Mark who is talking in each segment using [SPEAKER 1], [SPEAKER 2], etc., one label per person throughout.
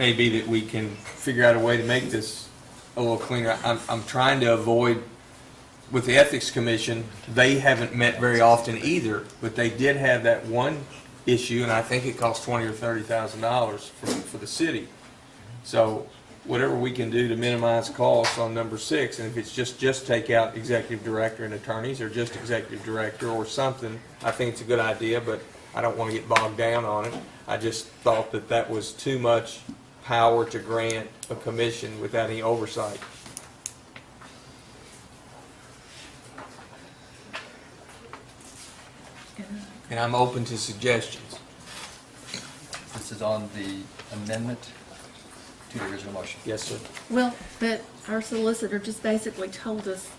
[SPEAKER 1] may be that we can figure out a way to make this a little cleaner. I'm, I'm trying to avoid, with the Ethics Commission, they haven't met very often either, but they did have that one issue, and I think it cost twenty or thirty thousand dollars for, for the city. So whatever we can do to minimize costs on number six, and if it's just, just take out executive director and attorneys, or just executive director or something, I think it's a good idea, but I don't want to get bogged down on it. I just thought that that was too much power to grant a commission without any oversight. And I'm open to suggestions.
[SPEAKER 2] This is on the amendment to the original motion.
[SPEAKER 1] Yes, sir.
[SPEAKER 3] Well, but our solicitor just basically told us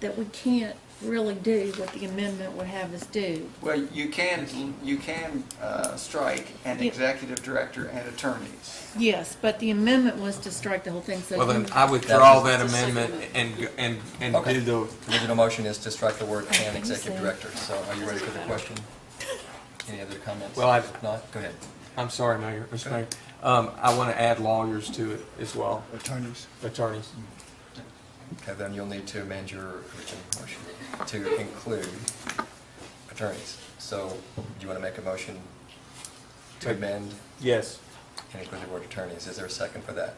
[SPEAKER 3] that we can't really do what the amendment would have us do.
[SPEAKER 4] Well, you can, you can uh, strike an executive director and attorneys.
[SPEAKER 3] Yes, but the amendment was to strike the whole thing, so.
[SPEAKER 1] Well, then I withdraw that amendment and, and, and do the
[SPEAKER 2] The original motion is to strike the word and
[SPEAKER 3] Okay,
[SPEAKER 2] executive
[SPEAKER 3] so-
[SPEAKER 2] director. So are you ready for the question? Any other comments?
[SPEAKER 1] Well, I've-
[SPEAKER 2] If not, go ahead.
[SPEAKER 1] I'm sorry, Mayor, Mr. Mayor. Um, I want to add lawyers to it as well,
[SPEAKER 5] attorneys.
[SPEAKER 1] attorneys. Mm.
[SPEAKER 2] Okay, then you'll need to amend your original motion to include attorneys. So do you want to make a motion to amend
[SPEAKER 1] Yes,
[SPEAKER 2] and include the word attorneys? Is there a second for that?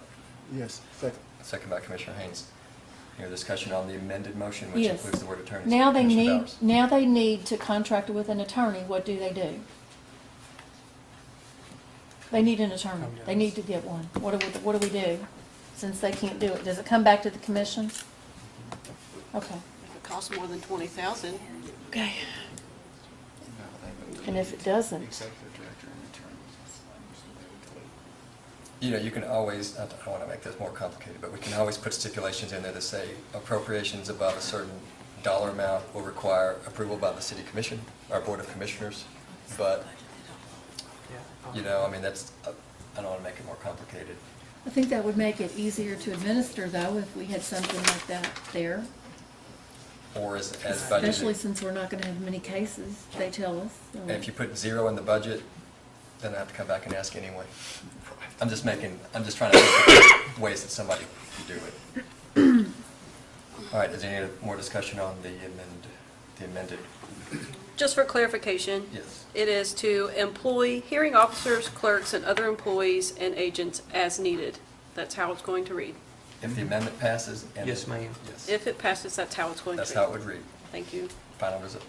[SPEAKER 5] Yes, second.
[SPEAKER 2] Second by Commissioner Haynes. Your discussion on the amended motion, which
[SPEAKER 3] Yes.
[SPEAKER 2] includes the word attorneys.
[SPEAKER 3] Now they
[SPEAKER 2] Commissioner
[SPEAKER 3] need,
[SPEAKER 2] Bowers.
[SPEAKER 3] now they need to contract with an attorney, what do they do? They need an attorney, they need to get one, what do we, what do we do, since they can't do it, does it come back to the commission?
[SPEAKER 2] Mm-hmm.
[SPEAKER 3] Okay,
[SPEAKER 6] If it costs more than twenty thousand,
[SPEAKER 3] okay, and if it doesn't,
[SPEAKER 4] Executive director and attorneys.
[SPEAKER 2] You know, you can always, I don't want to make this more complicated, but we can always put stipulations in there to say appropriations above a certain dollar amount will require approval by the city commission, our board of commissioners. But, you know, I mean, that's, uh, I don't want to make it more complicated.
[SPEAKER 3] I think that would make it easier to administer though, if we had something like that there.
[SPEAKER 2] Or as, as
[SPEAKER 3] Especially
[SPEAKER 2] budgeted.
[SPEAKER 3] since we're not gonna have many cases, they tell us. so-
[SPEAKER 2] And if you put zero in the budget, then I have to come back and ask anyway. I'm just making, I'm just trying to think of ways that somebody could do it. All right, is there any more discussion on the amend, the amended?
[SPEAKER 7] Just for clarification.
[SPEAKER 2] Yes.
[SPEAKER 7] It is to employ hearing officers, clerks, and other employees and agents as needed. That's how it's going to read.
[SPEAKER 2] If the amendment passes? and-
[SPEAKER 1] Yes, ma'am.
[SPEAKER 2] Yes.
[SPEAKER 7] If it passes, that's how it's going to read.
[SPEAKER 2] That's how it would read.
[SPEAKER 7] Thank you.
[SPEAKER 2] Final result.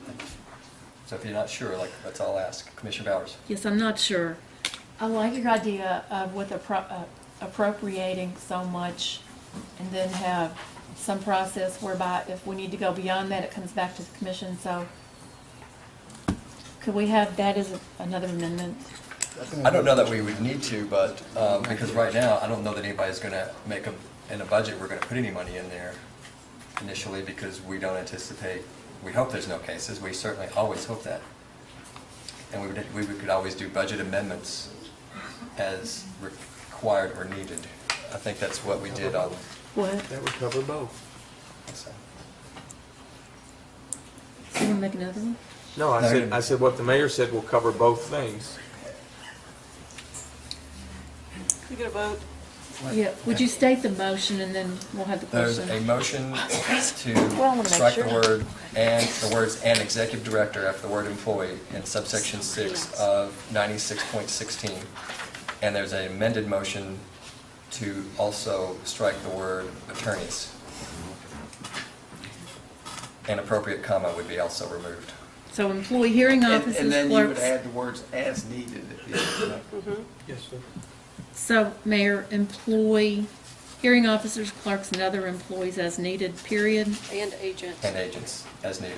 [SPEAKER 2] So if you're not sure, like, let's all ask. Commissioner Bowers?
[SPEAKER 3] Yes, I'm not sure. I like your idea of with appro- uh, appropriating so much and then have some process whereby if we need to go beyond that, it comes back to the commission, so. Could we have that as a- another amendment?
[SPEAKER 2] I don't know that we would need to, but, um, because right now, I don't know that anybody's gonna make a, in a budget, we're gonna put any money in there initially, because we don't anticipate, we hope there's no cases, we certainly always hope that. And we would, we could always do budget amendments as required or needed. I think that's what we did on,
[SPEAKER 3] What?
[SPEAKER 1] That would cover both.
[SPEAKER 3] You wanna make another one?
[SPEAKER 1] No, I
[SPEAKER 2] No,
[SPEAKER 1] said,
[SPEAKER 2] you-
[SPEAKER 1] I said what the mayor said will cover both things.
[SPEAKER 6] we get a vote.
[SPEAKER 3] Yeah, would you state the motion and then we'll have the
[SPEAKER 2] There's a
[SPEAKER 3] question?
[SPEAKER 2] motion
[SPEAKER 3] Well, I wanna
[SPEAKER 2] to
[SPEAKER 3] make
[SPEAKER 2] strike the
[SPEAKER 3] sure.
[SPEAKER 2] word and, the words "and executive director" after the word "employee" in subsection six of ninety-six point sixteen. And there's an amended motion to also strike the word "attorneys." An appropriate comma would be also removed.
[SPEAKER 3] So employee hearing
[SPEAKER 4] And and
[SPEAKER 3] officers,
[SPEAKER 4] then you would
[SPEAKER 3] clerks.
[SPEAKER 4] add the words as needed at the end.
[SPEAKER 1] Yes, sir.
[SPEAKER 3] So, Mayor, employ hearing officers, clerks, and other employees as needed, period.
[SPEAKER 7] And agents.
[SPEAKER 2] And agents, as needed.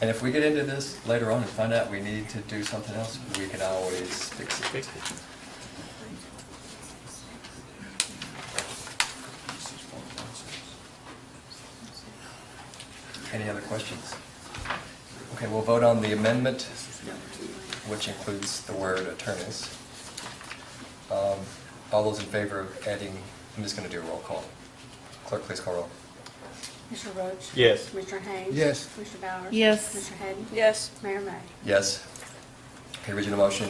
[SPEAKER 2] And if we get into this later on and find out we need to do something else, we can always fix it. Any other questions? Okay, we'll vote on the amendment, which includes the word attorneys. Um, All those in favor of adding, I'm just going to do a roll call. Clerk, please call roll.
[SPEAKER 8] Mr. Roach?
[SPEAKER 1] Yes.
[SPEAKER 8] Mr. Haynes?
[SPEAKER 5] Yes.
[SPEAKER 8] Mr. Bowers?
[SPEAKER 3] Yes.
[SPEAKER 8] Mr. Hadden?
[SPEAKER 7] Yes.
[SPEAKER 8] Mayor May?
[SPEAKER 2] Yes. the original motion